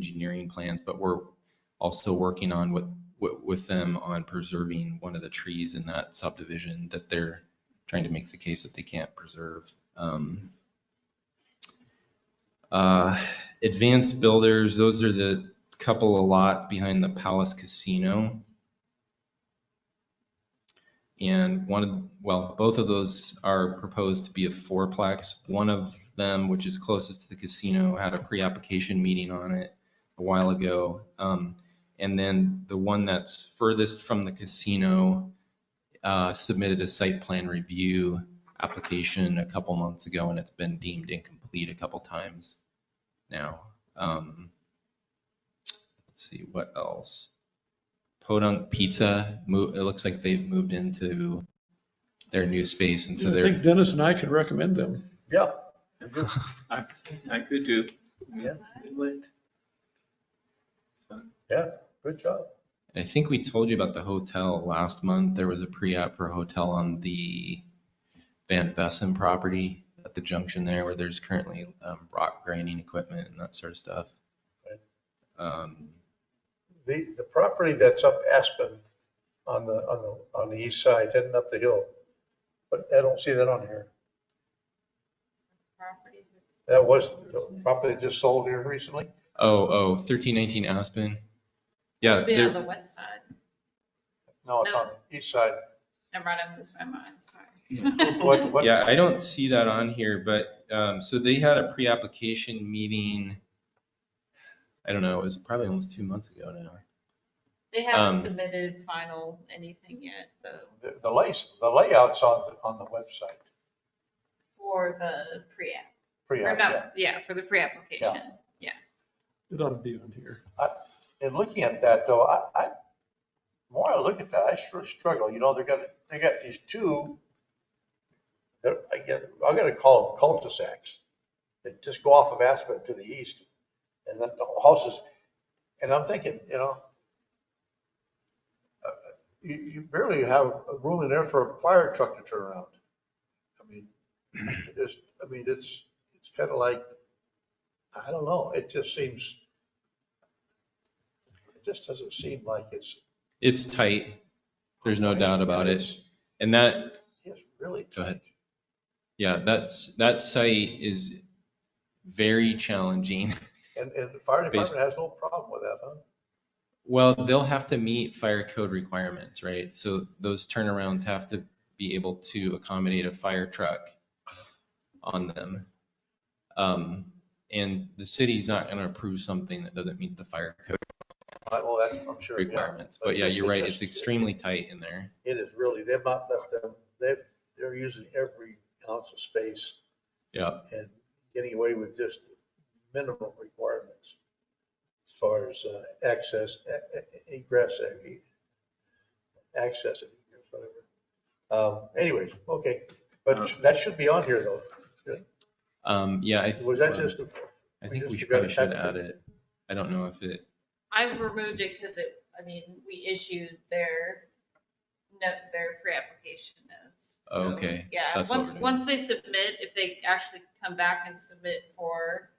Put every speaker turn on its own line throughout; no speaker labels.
engineering plans, but we're also working on with, with, with them on preserving one of the trees in that subdivision that they're trying to make the case that they can't preserve. Um, uh, Advanced builders, those are the couple of lots behind the Palace Casino. And one of, well, both of those are proposed to be a fourplex. One of them, which is closest to the casino, had a pre-application meeting on it a while ago. Um, and then the one that's furthest from the casino uh, submitted a site plan review application a couple months ago, and it's been deemed incomplete a couple times now. Um, let's see, what else? Podunk Pizza, mo- it looks like they've moved into their new space, and so
I
they're,
think Dennis and I could recommend them.
Yeah.
I, I could do.
Yeah.
Inlet.
Yeah, good job.
I think we told you about the hotel last month. There was a pre-app for a hotel on the Van Vessen property at the junction there where there's currently um, rock grinding equipment and that sort of stuff. Um,
The, the property that's up Aspen on the, on the, on the east side, heading up the hill, but I don't see that on here.
property that's
That was the property that just sold here recently.
Oh, oh, 1319 Aspen. Yeah,
be on
there-
the west side.
No, it's on the east side.
I brought up this by mind, sorry.
What, what,
yeah, I don't see that on here, but, um, so they had a pre-application meeting. I don't know, it was probably almost two months ago now. Um,
They haven't submitted final anything yet, though,
the, the lace, the layout's on, the on the website.
for the pre-app.
Pretty
Or
accurate.
not, yeah, for the pre-application.
It ought to be on here.
And looking at that though, I, I, the more I look at that, I sure struggle, you know, they're gonna, they got these two. They're, I get, I'm gonna call them cul-de-sacs that just go off of Aspen to the east and then the houses. And I'm thinking, you know, uh, you, you barely have room in there for a fire truck to turn around. I mean, it's, I mean, it's, it's kind of like, I don't know, it just seems. It just doesn't seem like it's.
It's tight. There's no doubt about it. And that,
It's really.
Go ahead. Yeah, that's, that site is very challenging.
And, and the fire
Based-
department has no problem with that, huh?
Well, they'll have to meet fire code requirements, right? So those turnarounds have to be able to accommodate a fire truck on them. Um, and the city's not gonna approve something that doesn't meet the fire code
I- Well, that's, I'm sure, yeah.
requirements. But yeah, you're right, it's extremely tight in there.
It is really, they've not left them, they've, they're using every ounce of space
Yeah,
and getting away with just minimum requirements as far as uh, access, e- e- egress, e- access, egress, whatever. Um, Anyways, okay,
Uh,
but that should be on here though.
um, yeah, I,
Was that just, a-
I think
just
we
forgot
probably
to
should
touch
add it. I don't know if it,
I removed it because it, I mean, we issued their, no, their pre-application notes. So,
Okay,
Yeah,
that's what
once,
we're doing.
once they submit, if they actually come back and submit for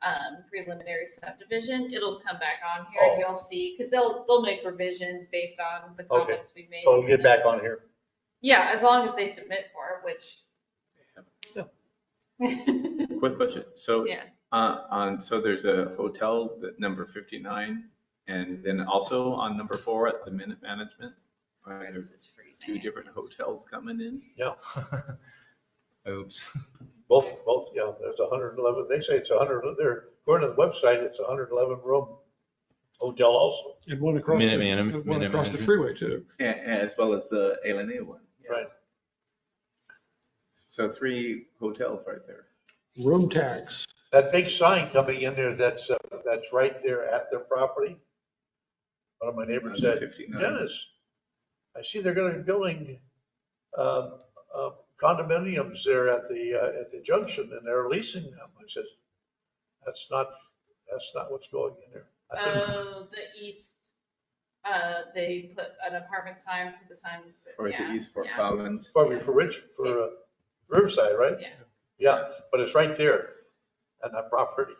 um, preliminary subdivision, it'll come back on here
Oh.
and you'll see, because they'll, they'll make revisions based on the
Okay,
comments we made.
so it'll get back on here.
Yeah, as long as they submit for it, which.
Quick question. So,
Yeah.
uh, on, so there's a hotel that number 59 and then also on number four at the Minute Management. Are there
This is freezing.
two different hotels coming in?
oops.
Both, both, yeah, there's hundred and eleven, they say it's hundred, they're, according to the website, it's hundred and eleven room hotel also.
And one across,
Minute
the-
Man-
one
Minute
across the
Management.
freeway too.
A- As well as the A one. yeah.
Right.
So three hotels right there.
Room tax.
That big sign coming in there, that's, uh, that's right there at their property. One of my neighbors
Under
said,
59.
Dennis, I see they're gonna be building, um, uh, condominiums there at the, uh, at the junction and they're leasing them. I said, that's not, that's not what's going in there. I think
Oh, the east, uh, they put an apartment sign for the sign.
Or
yeah,
the East Fork
yeah.
Commons.
Probably for Rich, for uh, Riverside, right?
Yeah.
Yeah, but it's right there on that property.